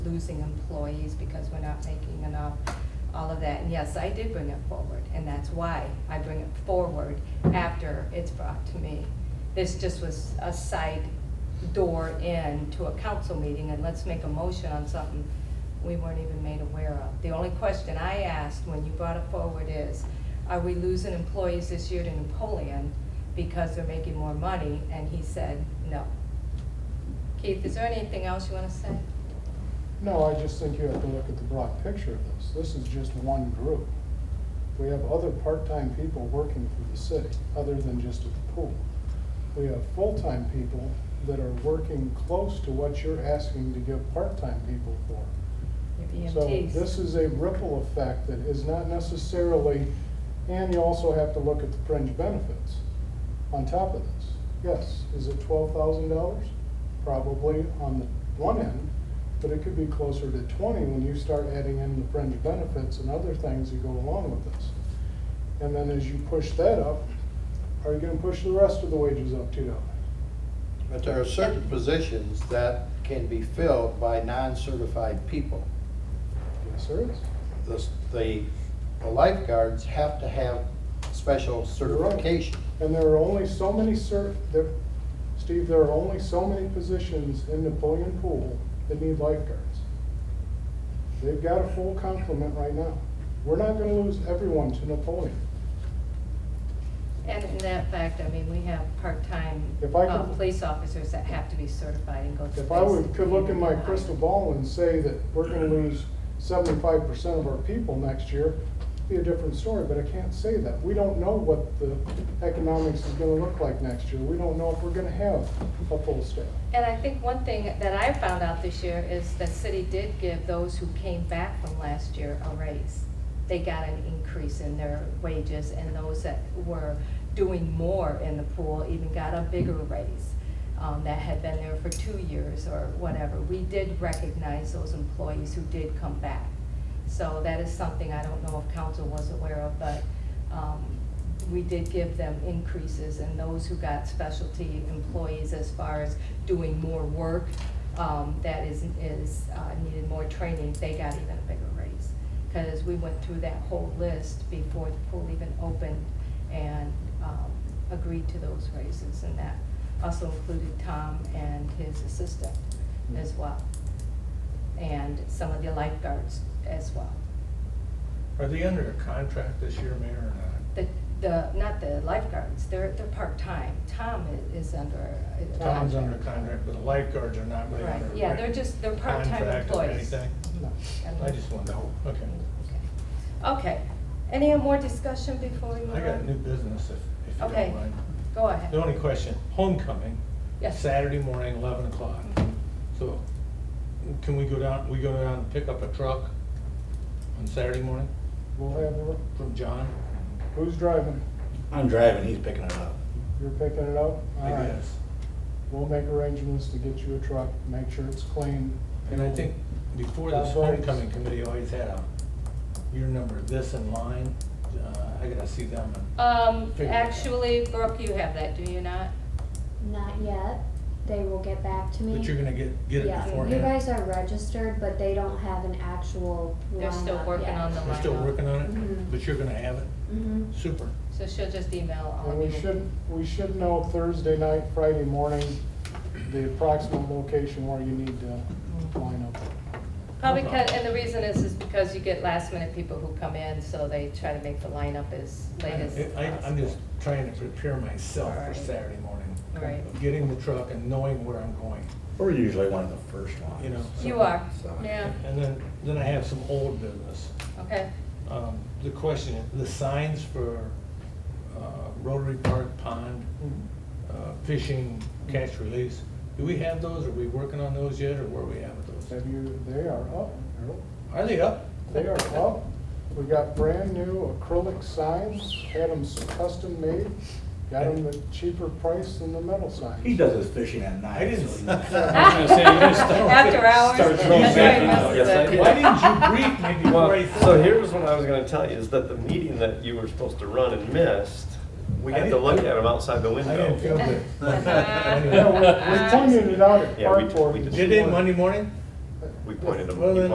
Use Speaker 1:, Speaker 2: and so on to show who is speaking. Speaker 1: losing employees because we're not making enough, all of that. And yes, I did bring it forward, and that's why I bring it forward after it's brought to me. This just was a side door in to a council meeting, and let's make a motion on something we weren't even made aware of. The only question I asked when you brought it forward is, are we losing employees this year to Napoleon because they're making more money? And he said, no. Keith, is there anything else you want to say?
Speaker 2: No, I just think you have to look at the broad picture of this. This is just one group. We have other part-time people working for the city, other than just at the pool. We have full-time people that are working close to what you're asking to give part-time people for.
Speaker 1: Your
Speaker 2: So this
Speaker 1: EMTs.
Speaker 2: is a ripple effect that is not necessarily, and you also have to look at the fringe benefits on top of this. Yes, is it twelve thousand dollars? Probably on the one end, but it could be closer to twenty when you start adding in the fringe benefits and other things that go along with this. And then as you push that up, are you gonna push the rest of the wages up too? Doc?
Speaker 3: But there are certain positions that can be filled by non-certified people.
Speaker 2: Yes, there is.
Speaker 3: The- The the lifeguards have to have special certification.
Speaker 2: And there are only so many cert, there, Steve, there are only so many positions in Napoleon Pool that need lifeguards. They've got a full complement right now. We're not gonna lose everyone to Napoleon.
Speaker 1: And in that fact, I mean, we have part-time
Speaker 2: If I
Speaker 1: uh,
Speaker 2: could-
Speaker 1: police officers that have to be certified and go to.
Speaker 2: If I would,
Speaker 1: basic
Speaker 2: could look in my
Speaker 1: training.
Speaker 2: crystal ball and say that we're gonna lose seventy-five percent of our people next year, it'd be a different story, but I can't say that. We don't know what the economics is gonna look like next year. We don't know if we're gonna have a full staff.
Speaker 1: And I think one thing that I found out this year is the city did give those who came back from last year a raise. They got an increase in their wages, and those that were doing more in the pool even got a bigger raise um, that had been there for two years or whatever. We did recognize those employees who did come back. So that is something I don't know if council was aware of, but um, we did give them increases and those who got specialty employees as far as doing more work um, that is, is, uh, needed more training, they got even a bigger raise. Because we went through that whole list before the pool even opened and um, agreed to those raises. And that also included Tom and his assistant
Speaker 2: Mm-hmm.
Speaker 1: as well. And some of the lifeguards as well.
Speaker 4: Are they under a contract this year, Mayor, or not?
Speaker 1: The, the, not the lifeguards, they're, they're part-time. Tom i- is under. a
Speaker 4: Tom's under contract, but the lifeguards are not really
Speaker 1: Right,
Speaker 4: under.
Speaker 1: yeah, they're just, they're part-time
Speaker 4: contract or
Speaker 1: employees.
Speaker 4: anything?
Speaker 2: No.
Speaker 1: Mhm.
Speaker 4: I just want to, know. okay.
Speaker 1: Okay. Okay, any more discussion before we move on?
Speaker 4: I got new business if, if you
Speaker 1: uh, Okay.
Speaker 4: don't mind.
Speaker 1: Go ahead.
Speaker 4: The only question, homecoming.
Speaker 1: Yes. Mm-hmm.
Speaker 4: Saturday morning, eleven o'clock. So can we go down, we go down and pick up a truck on Saturday morning
Speaker 2: We'll have, a-
Speaker 4: from John?
Speaker 2: who's driving?
Speaker 5: I'm driving, he's picking it up.
Speaker 2: You're picking it up?
Speaker 4: I
Speaker 2: All right.
Speaker 4: guess.
Speaker 2: We'll make arrangements to get you a truck, make sure it's clean.
Speaker 4: And I think before this homecoming committee always had a, your number this in line, uh, I gotta see them.
Speaker 6: Uh,
Speaker 1: Um,
Speaker 4: Figure it out.
Speaker 1: actually, Brooke, you have that, do you not?
Speaker 6: Not yet. They will get back to me.
Speaker 4: But you're gonna get, get it
Speaker 6: Yeah.
Speaker 4: beforehand.
Speaker 6: You guys are registered, but they don't have an actual
Speaker 1: They're still
Speaker 6: lineup
Speaker 1: working
Speaker 6: yet.
Speaker 1: on the
Speaker 4: We're still
Speaker 1: lineup.
Speaker 4: working on
Speaker 6: Mhm.
Speaker 4: it, but you're gonna have it,
Speaker 6: Mhm.
Speaker 4: super.
Speaker 1: So she'll just email all
Speaker 2: And
Speaker 1: of you.
Speaker 2: we should, we should know Thursday night, Friday morning, the approximate location where you need to line up.
Speaker 1: Probably,
Speaker 4: No
Speaker 1: ca-
Speaker 4: problem.
Speaker 1: and the reason is, is because you get last minute people who come in, so they try to make the lineup as late as
Speaker 4: I- I, I'm
Speaker 1: possible.
Speaker 4: just trying to prepare myself for
Speaker 1: Alright.
Speaker 4: Saturday morning.
Speaker 1: Right.
Speaker 4: Getting the truck and knowing where I'm going,
Speaker 5: We're usually one of the first ones.
Speaker 4: You know.
Speaker 1: You are,
Speaker 5: So-
Speaker 1: yeah,
Speaker 4: and then, then I have some old business.
Speaker 1: okay.
Speaker 4: Um, the question, the signs for, uh, Rotary Park Pond, uh, fishing catch release. Do we have those? Are we working on those yet, or where are we at with those?
Speaker 2: Have you, they are up, Harold.
Speaker 4: Are they up?
Speaker 2: They are up. We got brand new acrylic signs, had them custom made, got them at cheaper price than the metal signs.
Speaker 5: He does his fishing at night.
Speaker 4: I didn't.
Speaker 5: so he-
Speaker 4: Why
Speaker 7: say, you're gonna start-
Speaker 1: After hours.
Speaker 7: start
Speaker 1: that's
Speaker 7: throwing
Speaker 1: right,
Speaker 7: back
Speaker 1: most
Speaker 7: now.
Speaker 1: of
Speaker 7: Oh, Yes, I
Speaker 1: it.
Speaker 7: did.
Speaker 4: Why didn't you brief me before I
Speaker 7: Well,
Speaker 4: said?
Speaker 7: so
Speaker 4: that?
Speaker 7: here's what I was gonna tell you, is that the meeting that you were supposed to run and missed, we
Speaker 4: I
Speaker 7: had to
Speaker 4: didn't-
Speaker 7: look at them outside the
Speaker 4: I didn't feel
Speaker 7: window.
Speaker 4: good.
Speaker 2: Yeah, we- we pointed it out at
Speaker 7: Yeah, we- we
Speaker 2: cardboard.
Speaker 7: did.
Speaker 4: Did they Monday morning?
Speaker 7: We
Speaker 8: we pointed them,
Speaker 3: Well,
Speaker 8: you
Speaker 3: then